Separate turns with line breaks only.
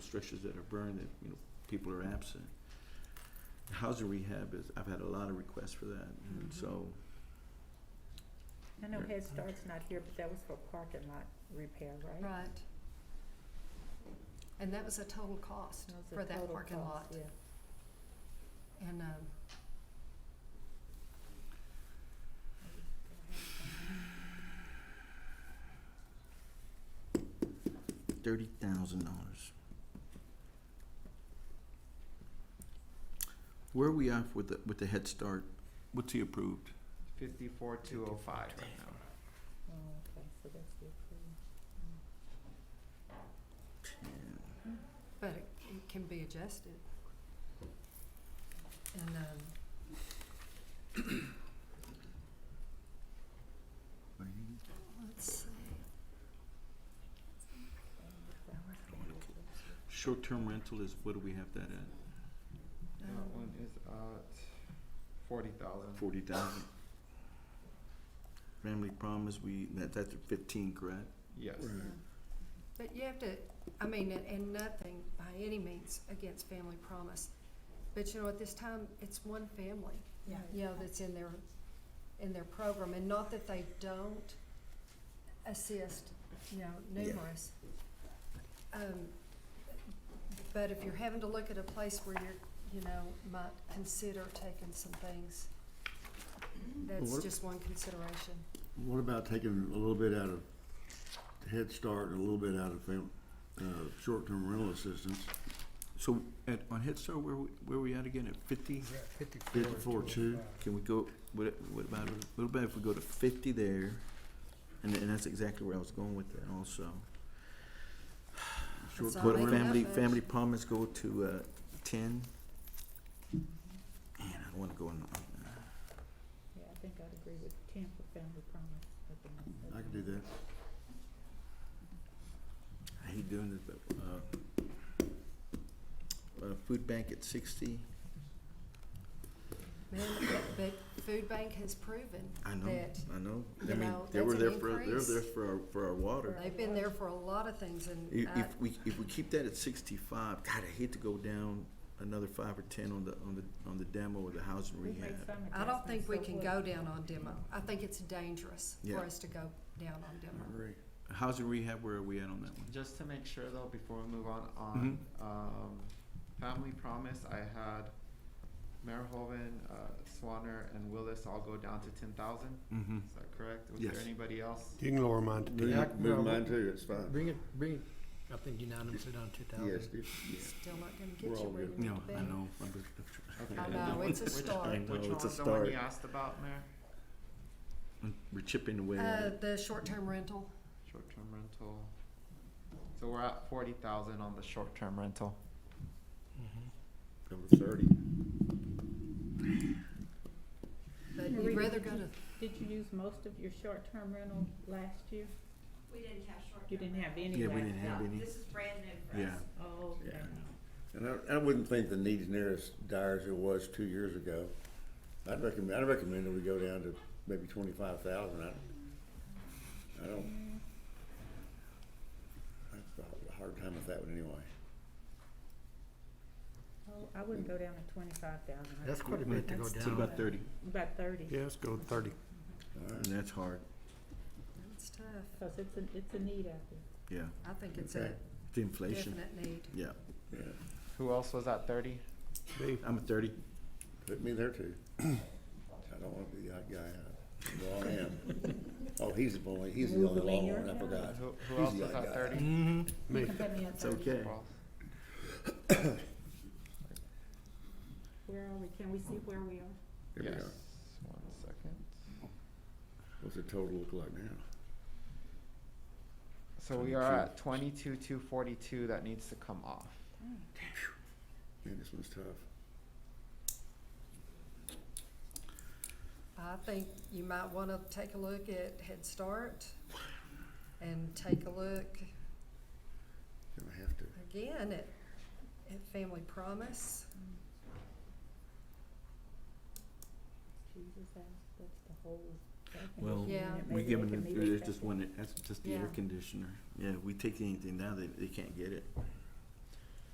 structures that are burned that, you know, people are absent. Housing rehab is, I've had a lot of requests for that, and
Mhm.
so,
I know Head Start's not here, but that was for parking lot repair, right?
Right. And that was a total cost
That was the
for that
total
parking lot.
cost, Yeah.
And, um,
thirty thousand dollars. Where are we off with the, with the Head Start? What's he approved?
Fifty-four, two oh five right now.
Oh, okay, so that's the approval.
but it, it can be adjusted. And, um, let's see,
Short-term rental is, what do we have that at?
That
um,
one is at forty thousand.
Forty thousand. Family promise, we, that, that's at fifteen, correct?
Yes.
yeah. Um, But you have to, I mean, and, and nothing by any means against Family Promise. But you know, at this time, it's one family.
Yeah.
you know, that's in their, in their program, and not that they don't assist, you know,
Yeah.
numerous. Um, but if you're having to look at a place where you're, you know, might consider taking some things, that's
What-
just one consideration.
What about taking a little bit out of Head Start and a little bit out of fam- uh, short-term rental assistance,
So at, on Head Start, where, we- where we at again, at fifty?
oh
fifty-four two?
Can we go, what, what about, what about if we go to fifty there? And, and that's exactly where I was going with that also.
It's not
What,
making that
family,
much.
family promise go to, uh, ten? Man, I don't wanna go in, uh,
Yeah, I think I'd agree with ten for family promise. I think that's-
I can do that.
I hate doing this, but, uh, uh, food bank at sixty,
Man, but- but Food Bank has proven
I know,
that
I know.
you
I mean,
know,
they were
that's
there
an
for, they were
increase.
there for our, for our water.
they've been there for a lot of things,
I-
and
Uh,
I,
If we, if we keep that at sixty-five, God, I hate to go down another five or ten on the, on the, on the demo or the housing
We've made
rehab.
some
I don't think
adjustments,
we
so
can
what-
go down on demo. I think it's dangerous
Yeah.
for us to go down on demo.
Housing rehab, where are we at on that one?
Just to make sure though, before we move on, on,
Mm-hmm.
um, Family Promise, I had Merhoven, uh, Swanner and Willis all go down to ten thousand,
Mm-hmm.
is that correct? Was
Yes.
there anybody else?
You can lower mine to
Move
ten.
move mine too, it's fine.
Bring it, bring it, I think unanimously down two thousand.
Yes, dude.
Still not gonna get
We're
you
all
where you
good.
need
No,
to be.
I know. I'm
Okay.
I know, it's a
Which-
start.
No,
Which one
it's a
was the one you
start.
asked about, Mayor?
just- We're chipping away at
Uh,
it.
the short-term rental,
Short-term rental. So we're at forty thousand on the short-term rental.
Number thirty.
but
Marie,
you'd rather
did
go to,
you- Did you use most of your short-term rental last year?
We didn't have short.
You didn't have any last
Yeah, we didn't have
No,
any.
This is brand new for
Yeah.
us.
Oh, okay.
Yeah. And I, I wouldn't think the need's near as dire as it was two years ago. I'd recommend, I'd recommend that we go down to maybe twenty-five thousand. I, I don't. I have a hard time with that one anyway.
Oh, I wouldn't go down to twenty-five thousand.
That's quite a bit to go
That's
It's
down.
about thirty,
About thirty.
Yeah, let's go thirty.
All
and
right.
that's hard,
it's tough.
Cause it's a, it's a need out there.
yeah.
I think it's a
Okay.
It's inflation,
definite need.
yeah.
Yeah,
Who else was at thirty?
Dave,
I'm a thirty.
put me there too. I don't want to be that guy. I- Well, I am. Oh, he's the boy. He's the
Move
only
him in
long
your
one. I
account.
forgot.
Who,
He's
who else
the
was
odd
at
guy.
thirty?
Mm-hmm.
me.
Come get me at
It's
thirty.
okay.
Where are we? Can we see where we are?
Here we
Yes,
are.
one second.
What's the total look like now?
So we are
22.
at twenty-two, two forty-two, that needs to come off.
Man, this one's tough.
I think you might wanna take a look at Head Start and take a look
Gonna have to.
again at, at Family Promise.
Jesus, that's, that's the whole.
Well,
Yeah.
We give them, there's just one, that's just the air
Yeah.
conditioner. Yeah, we take anything down, they, they can't get it.